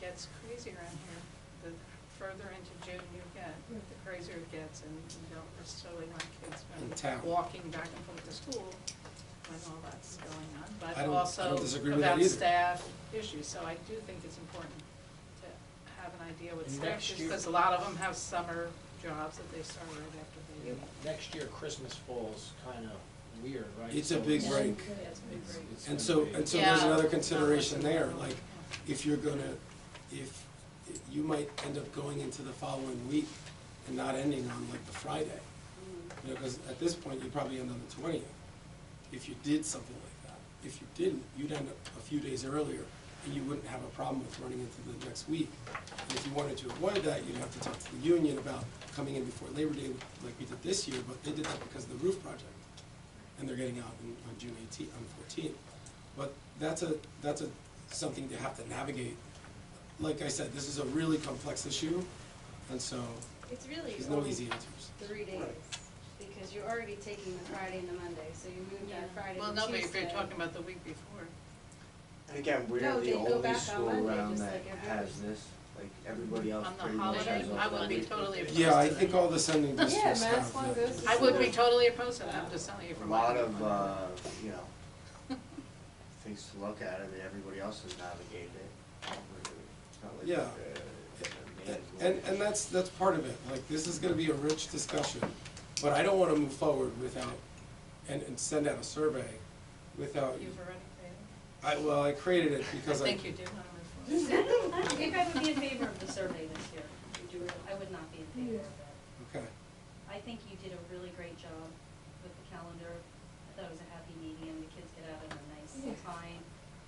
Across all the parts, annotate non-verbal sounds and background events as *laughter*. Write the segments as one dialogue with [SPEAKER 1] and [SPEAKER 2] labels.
[SPEAKER 1] gets crazy around here. The further into June you get, the crazier it gets, and you don't necessarily want kids
[SPEAKER 2] In town.
[SPEAKER 1] walking back and forth to school when all that's going on,
[SPEAKER 2] I
[SPEAKER 1] but
[SPEAKER 2] don't- I
[SPEAKER 1] also
[SPEAKER 2] don't disagree with that
[SPEAKER 1] about
[SPEAKER 2] either.
[SPEAKER 1] staff issues. So I do think it's important to have an idea what
[SPEAKER 3] And
[SPEAKER 1] staff
[SPEAKER 3] next
[SPEAKER 1] issues,
[SPEAKER 3] year-
[SPEAKER 1] because a lot of them have summer jobs that they start right after they leave.
[SPEAKER 3] Next year, Christmas falls kind of weird, right?
[SPEAKER 2] It's a
[SPEAKER 3] So
[SPEAKER 2] big
[SPEAKER 3] it's-
[SPEAKER 2] break.
[SPEAKER 1] Yeah, it's a big
[SPEAKER 3] it's-
[SPEAKER 1] break.
[SPEAKER 3] it's
[SPEAKER 2] And
[SPEAKER 3] gonna
[SPEAKER 2] so,
[SPEAKER 3] be-
[SPEAKER 2] and so there's
[SPEAKER 1] Yeah.
[SPEAKER 2] another consideration there,
[SPEAKER 1] Yeah.
[SPEAKER 2] like, if you're gonna, if, you might end up going into the following week and not ending on like the Friday. You know, because at this point, you probably end on the twentieth, if you did something like that. If you didn't, you'd end up a few days earlier, and you wouldn't have a problem with running into the next week. And if you wanted to avoid that, you'd have to talk to the union about coming in before Labor Day, like we did this year, but they did that because of the roof project. And they're getting out in, on June eighteenth, on fourteenth. But that's a, that's a, something they have to navigate. Like I said, this is a really complex issue, and so,
[SPEAKER 4] It's really
[SPEAKER 2] there's no
[SPEAKER 4] only
[SPEAKER 2] easy answers.
[SPEAKER 4] three days, because you're already taking the Friday and the Monday, so you move
[SPEAKER 1] Yeah.
[SPEAKER 4] that Friday to
[SPEAKER 1] Well,
[SPEAKER 4] Tuesday.
[SPEAKER 1] no, but if you're talking about the week before.
[SPEAKER 5] And again, we're
[SPEAKER 4] No, they
[SPEAKER 5] the
[SPEAKER 4] go
[SPEAKER 5] only
[SPEAKER 4] back on Monday,
[SPEAKER 5] school around
[SPEAKER 4] just
[SPEAKER 5] that
[SPEAKER 4] like every
[SPEAKER 5] has
[SPEAKER 4] other-
[SPEAKER 5] this, like everybody else
[SPEAKER 1] On the
[SPEAKER 5] pretty much
[SPEAKER 1] holiday,
[SPEAKER 5] has off
[SPEAKER 1] I would
[SPEAKER 5] that
[SPEAKER 1] be
[SPEAKER 5] week.
[SPEAKER 1] totally opposed
[SPEAKER 2] Yeah, I think all the sending
[SPEAKER 4] Yeah,
[SPEAKER 2] districts have.
[SPEAKER 4] Mass one
[SPEAKER 2] that.
[SPEAKER 4] goes to
[SPEAKER 1] I would be totally opposed to that, I'm just telling you
[SPEAKER 5] A
[SPEAKER 1] from my.
[SPEAKER 5] lot of,
[SPEAKER 1] viewpoint.
[SPEAKER 5] uh, you know,
[SPEAKER 1] *laughs*
[SPEAKER 5] things to look at, I mean, everybody else has navigated it. It's not like,
[SPEAKER 2] Yeah.
[SPEAKER 5] uh, man,
[SPEAKER 2] And, and that's, that's part of it, like, this is gonna be a rich discussion, but I don't wanna move forward without, and, and send out a survey without,
[SPEAKER 1] You've already created.
[SPEAKER 2] I, well, I created it because I.
[SPEAKER 1] I think you did want to move forward.
[SPEAKER 4] *laughs* I think I would be in favor of the survey this year, Would you really? I would not be in favor of it.
[SPEAKER 2] Okay,
[SPEAKER 4] I think you did a really great job with the calendar, I thought it was a happy medium, the kids get out at a nice time.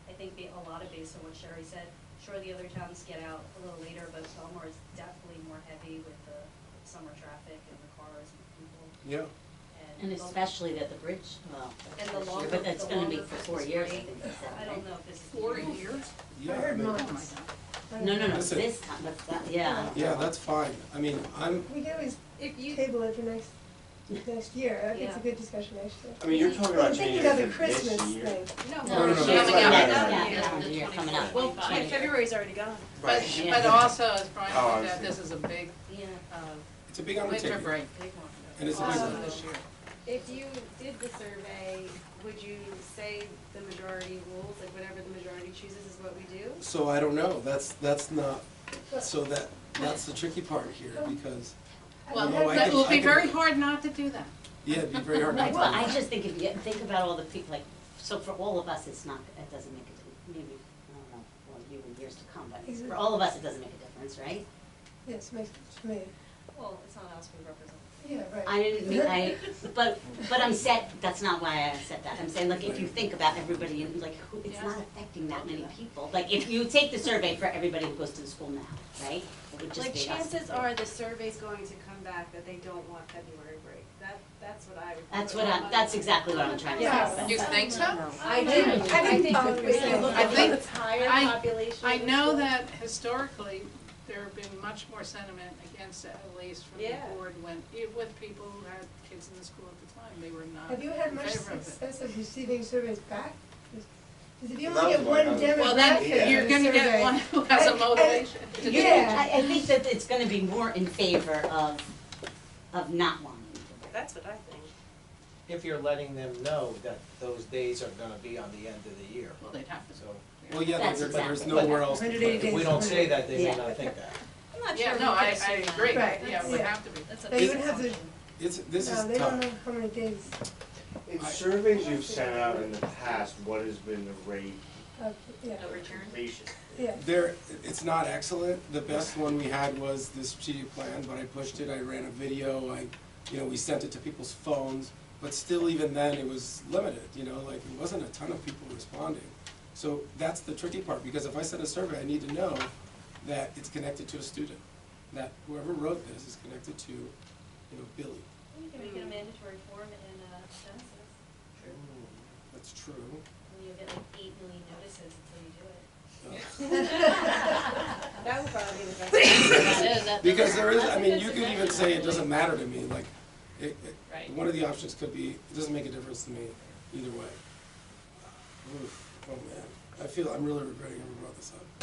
[SPEAKER 4] I think the- a lot of based on what Sherry said, sure, the other towns get out a little later, but Belmar is definitely more heavy with the summer traffic and the cars and people.
[SPEAKER 2] yeah,
[SPEAKER 6] And
[SPEAKER 4] Bel-
[SPEAKER 6] especially that the bridge, well,
[SPEAKER 4] And
[SPEAKER 6] that's
[SPEAKER 4] the
[SPEAKER 6] this year,
[SPEAKER 4] longer,
[SPEAKER 6] but that's
[SPEAKER 4] the
[SPEAKER 6] gonna be
[SPEAKER 4] longer
[SPEAKER 6] for four
[SPEAKER 4] Christmas
[SPEAKER 6] years.
[SPEAKER 4] break,
[SPEAKER 6] I think,
[SPEAKER 4] I don't know if this is.
[SPEAKER 1] Four years?
[SPEAKER 2] yeah.
[SPEAKER 7] heard
[SPEAKER 2] I mean,
[SPEAKER 1] Oh, my God.
[SPEAKER 7] months.
[SPEAKER 6] No, no, no,
[SPEAKER 2] Listen.
[SPEAKER 6] this time, but, that- yeah.
[SPEAKER 2] Yeah, that's fine, I mean, I'm,
[SPEAKER 7] We can always
[SPEAKER 4] If you,
[SPEAKER 7] table it for next, next year, I think it's a
[SPEAKER 4] Yeah.
[SPEAKER 7] good discussion, actually.
[SPEAKER 5] I mean, you're talking about
[SPEAKER 7] I'm
[SPEAKER 5] changing
[SPEAKER 7] thinking of the
[SPEAKER 5] it to this
[SPEAKER 7] Christmas
[SPEAKER 5] year.
[SPEAKER 7] thing.
[SPEAKER 4] no.
[SPEAKER 6] No,
[SPEAKER 2] no,
[SPEAKER 4] we're
[SPEAKER 2] no,
[SPEAKER 4] showing
[SPEAKER 2] that's
[SPEAKER 4] up
[SPEAKER 2] right.
[SPEAKER 4] at
[SPEAKER 5] Yeah,
[SPEAKER 4] that
[SPEAKER 5] yeah,
[SPEAKER 4] meeting.
[SPEAKER 6] yeah, you're coming up.
[SPEAKER 1] Well,
[SPEAKER 6] Yeah.
[SPEAKER 1] but-
[SPEAKER 8] February's already gone.
[SPEAKER 1] But,
[SPEAKER 6] Yeah.
[SPEAKER 1] but also, as Brian
[SPEAKER 5] Oh, I
[SPEAKER 1] pointed out,
[SPEAKER 5] see.
[SPEAKER 1] this is a big,
[SPEAKER 4] Yeah.
[SPEAKER 1] uh,
[SPEAKER 2] it's a big undertaking.
[SPEAKER 1] winter break.
[SPEAKER 4] Big one.
[SPEAKER 2] And it's a big
[SPEAKER 1] also
[SPEAKER 2] one.
[SPEAKER 1] this year.
[SPEAKER 8] If you did the survey, would you say the majority rules, like whatever the majority chooses is what we do?
[SPEAKER 2] So I don't know, that's, that's not, so that, that's the tricky part here, because,
[SPEAKER 1] Well,
[SPEAKER 2] know, I
[SPEAKER 1] it
[SPEAKER 2] could-
[SPEAKER 1] will
[SPEAKER 2] I
[SPEAKER 1] be
[SPEAKER 2] could-
[SPEAKER 1] very hard not to do that.
[SPEAKER 2] yeah, it'd be very hard not to.
[SPEAKER 6] *laughs* Well, I just think if you get- think about all the people, like, so for all of us, it's not, it doesn't make a, di- maybe, I don't know, well, you in years to come, but
[SPEAKER 7] Is it-
[SPEAKER 6] for all of us, it doesn't make a difference, right?
[SPEAKER 7] *laughs* Yes, makes sense to me.
[SPEAKER 8] Well, it's not us we represent.
[SPEAKER 7] Yeah, right.
[SPEAKER 6] I didn't mean,
[SPEAKER 7] *laughs*
[SPEAKER 6] I, but, but I'm set, that's not why I said that, I'm saying, like, if you think about everybody, and like, who, it's not affecting that many people. Like, if you take the survey for everybody who goes to the school now, right, it would just
[SPEAKER 8] Like
[SPEAKER 6] be us.
[SPEAKER 8] chances are the survey's going to come back that they don't want February break. That, that's what I would.
[SPEAKER 6] That's what I, that's exactly what I'm trying to
[SPEAKER 7] Yeah.
[SPEAKER 6] say.
[SPEAKER 1] You think so?
[SPEAKER 8] I do, I think
[SPEAKER 7] followed
[SPEAKER 8] we
[SPEAKER 7] yourself.
[SPEAKER 8] look
[SPEAKER 1] I
[SPEAKER 8] at
[SPEAKER 1] think-
[SPEAKER 8] the entire
[SPEAKER 1] I-
[SPEAKER 8] population.
[SPEAKER 1] I
[SPEAKER 8] of the
[SPEAKER 1] know
[SPEAKER 8] school.
[SPEAKER 1] that historically, there have been much more sentiment against it, at least from the
[SPEAKER 8] Yeah.
[SPEAKER 1] board, when, even with people who had kids in the school at the time, they were not in
[SPEAKER 7] Have you
[SPEAKER 1] favor
[SPEAKER 7] had
[SPEAKER 1] of it.
[SPEAKER 7] much success of receiving surveys back? Because if you
[SPEAKER 5] Well,
[SPEAKER 7] only
[SPEAKER 5] that was
[SPEAKER 7] get one
[SPEAKER 5] my
[SPEAKER 7] demographic
[SPEAKER 5] number.
[SPEAKER 1] Well, then,
[SPEAKER 5] Yeah.
[SPEAKER 1] you're gonna get
[SPEAKER 7] survey-
[SPEAKER 1] one who has
[SPEAKER 7] *laughs* I-
[SPEAKER 1] a
[SPEAKER 7] I-
[SPEAKER 1] motivation to do it.
[SPEAKER 7] Yeah.
[SPEAKER 6] I, I think that it's gonna be more in favor of, of not wanting.
[SPEAKER 8] That's what I think.
[SPEAKER 3] If you're letting them know that those days are gonna be on the end of the year,
[SPEAKER 1] Well, they'd have to.
[SPEAKER 3] so.
[SPEAKER 2] Well, yeah, but
[SPEAKER 6] That's
[SPEAKER 2] there- but there's
[SPEAKER 6] exactly-
[SPEAKER 2] nowhere else. to
[SPEAKER 7] 180
[SPEAKER 2] put it.
[SPEAKER 3] If we don't say that, they may not think that.
[SPEAKER 8] I'm not sure.
[SPEAKER 1] Yeah,
[SPEAKER 8] we
[SPEAKER 1] no,
[SPEAKER 8] could
[SPEAKER 1] I, I
[SPEAKER 8] assume that.
[SPEAKER 1] agree,
[SPEAKER 7] Right.
[SPEAKER 1] yeah, it would
[SPEAKER 7] Yeah.
[SPEAKER 1] have to be.
[SPEAKER 8] That's
[SPEAKER 7] They
[SPEAKER 8] a
[SPEAKER 7] would have to,
[SPEAKER 2] It's, this is
[SPEAKER 7] no, they
[SPEAKER 2] tough.
[SPEAKER 7] don't know how many days
[SPEAKER 5] In surveys you've sent out in the past, what has been the rate
[SPEAKER 7] of, yeah,
[SPEAKER 4] A return?
[SPEAKER 5] completion?
[SPEAKER 7] yeah.
[SPEAKER 2] There, it's not excellent. The best one we had was the strategic plan, but I pushed it, I ran a video, I, you know, we sent it to people's phones. But still, even then, it was limited, you know, like, it wasn't a ton of people responding. So that's the tricky part, because if I send a survey, I need to know that it's connected to a student. That whoever wrote this is connected to, you know, Billy.
[SPEAKER 4] You can make it a mandatory form in a census,
[SPEAKER 2] That's true.
[SPEAKER 4] and you'll get like eight million notices until you do it.
[SPEAKER 2] Uh,
[SPEAKER 8] *laughs*
[SPEAKER 1] *laughs*
[SPEAKER 8] That would probably be the best.
[SPEAKER 2] Because there is, I
[SPEAKER 4] That's a
[SPEAKER 2] mean,
[SPEAKER 4] good
[SPEAKER 2] you could even
[SPEAKER 4] suggestion,
[SPEAKER 2] say it doesn't
[SPEAKER 4] actually.
[SPEAKER 2] matter to me, like, it,
[SPEAKER 1] Right.
[SPEAKER 2] it, one of the options could be, it doesn't make a difference to me either way. Oof, oh man, I feel, I'm really regretting I ever brought this up.